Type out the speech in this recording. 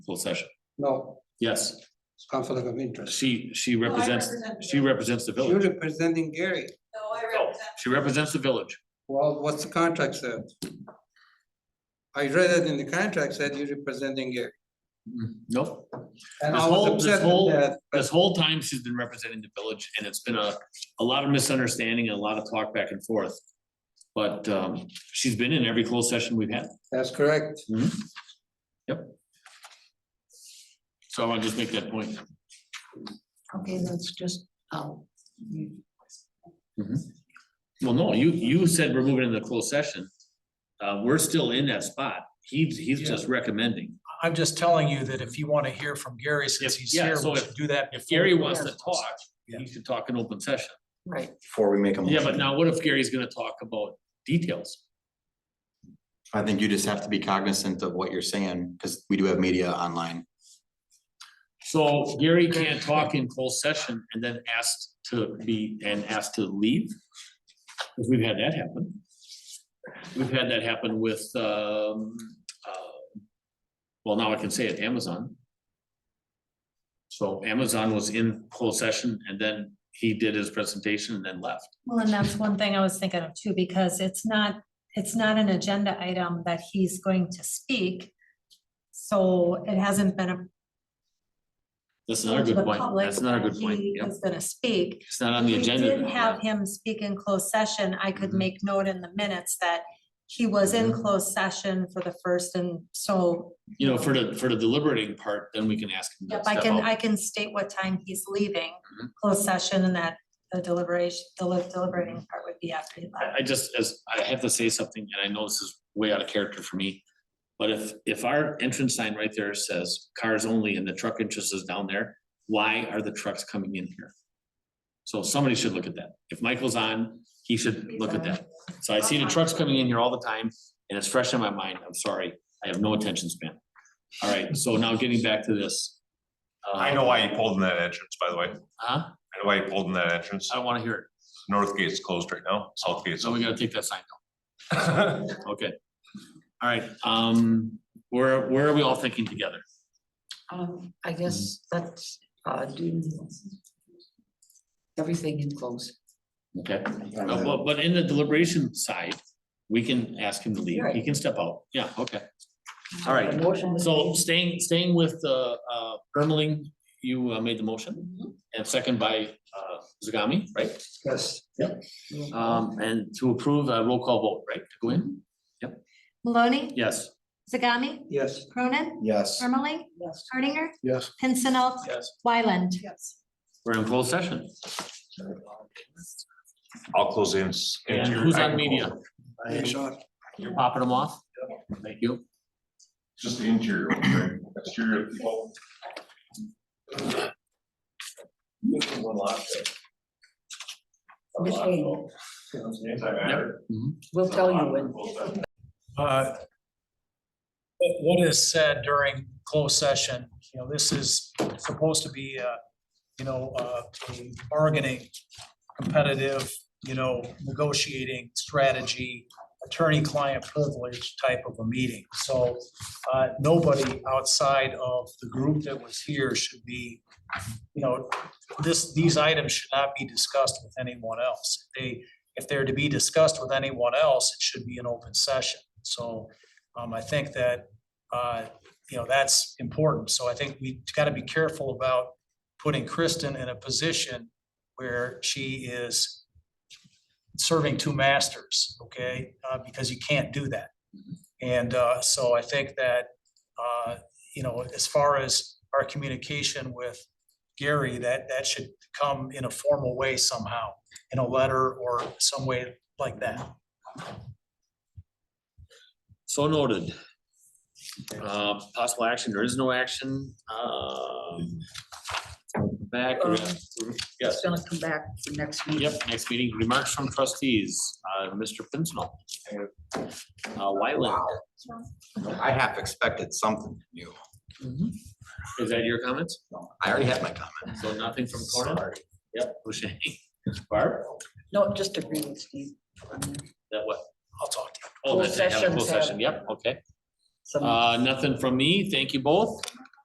full session. No, Yes, it's conflict of interest. she, she No, I represents, represent the she village. represents the You're village. representing Gary. No, I represent. She represents the village. Well, what's the contract said? I read it in the contract said you're representing Gary. Nope. And This I whole- was this upset whole- with that, but This whole time she's been representing the village and it's been a, a lot of misunderstanding and a lot of talk back and forth. But, um, she's been in every closed session we've had. that's correct. So I want to just make that point. Okay, that's just, oh. Well, no, you, you said we're moving into the closed session. Uh, we're still in that spot. He's, he's just recommending. I'm just telling you that if you want to hear from Gary since If- he's yeah, here, so we should do that. If before Gary we wants go to to talk, he Yeah. should talk in open session. Right, Before we make a motion. Yeah, but now what if Gary's gonna talk about details? I think you just have to be cognizant of what you're saying, because we do have media online. So Gary can't talk in closed session and then asked to be, and asked to leave? Cause we've had that happen. We've had that happen with, um, uh, well, now I can say it, Amazon. So Amazon was in closed session and then he did his presentation and then left. Well, and that's one thing I was thinking of too, because it's not, it's not an agenda item that he's going to speak. So it hasn't been a. That's another to the good point. public That's another that good point. He Yep, is gonna speak. it's not on the If we did agenda. have him speak in closed session, I could Mhm. make note in the minutes that he was in Mm-hmm. closed session for the first and so. You know, for the, for the deliberating part, then we can ask him to Yep, I step can, out. I can state what time he's leaving Mhm. closed session and that the deliberation, the deliberating part would be after he left. I, I just, as, I have to say something, and I know this is way out of character for me. But if, if our entrance sign right there says cars only and the truck entrance is down there, why are the trucks coming in here? So somebody should look at that. If Michael's on, he should look at that. So I see the trucks coming in here all the time, and it's fresh in my mind. I'm sorry. I have no attention span. All right, so now getting back to this. Uh, I know why you pulled in that entrance, by the way. I Huh? know why you pulled in that entrance. I don't wanna hear it. North gate's closed right now, south gate's. So we gotta take that sign open. Okay. All right, um, where, where are we all thinking together? um, I guess that's, uh, do. Everything in close. Okay, Uh, but, but in the deliberation side, we can ask him to leave. He Right. can step out. Yeah, okay. All right, The motion was So made. staying, staying with, uh, uh, Ermeling, you uh, made the motion Mhm. and second by, uh, Zagami, right? Yes, Um, and to approve a roll call vote, right? To go in? Maloney, Yes. Zagami, yes. Cronin, Yes. Ermeling, Yes. Hardinger, Yes. Pincinot, Yes. Wyland. Yes. We're in closed session. I'll close in. And who's on media? Hey, Sean. You're popping them off? Thank you. Just the interior, okay. exterior people. Which way? Anti-matter. We'll tell you when. Uh, But what is said during closed session, you know, this is supposed to be, uh, you know, uh, a bargaining, competitive, you know, negotiating strategy, attorney-client privilege type of a meeting. So uh, nobody outside of the group that was here should be, you know, this, these items should not be discussed with anyone else. They, if they're to be discussed with anyone else, it should be an open session. So um, I think that, uh, you know, that's important. So I think we got to be careful about putting Kristen in a position where she is serving two masters, okay? Uh, because you can't do that. And, uh, so I think that, uh, you know, as far as our communication with Gary, that, that should come in a formal way somehow, in a letter or some way like that. So noted. Uh, possible action, there is no action, um. Back, we're gonna- yes, It's gonna come back for next meeting. yep, next meeting, remarks from trustees, uh, Mr. Pincinel. Uh, Wyland, I half expected something new. is that your comments? I already had my comment. So nothing from Conan? Yep. Boucher, Barb, No, just agree with Steve. that what? I'll talk to you. Oh, Closed that's, a sessions closed have- session, yep, okay. Some- Uh, nothing from Uh, me, thank you both.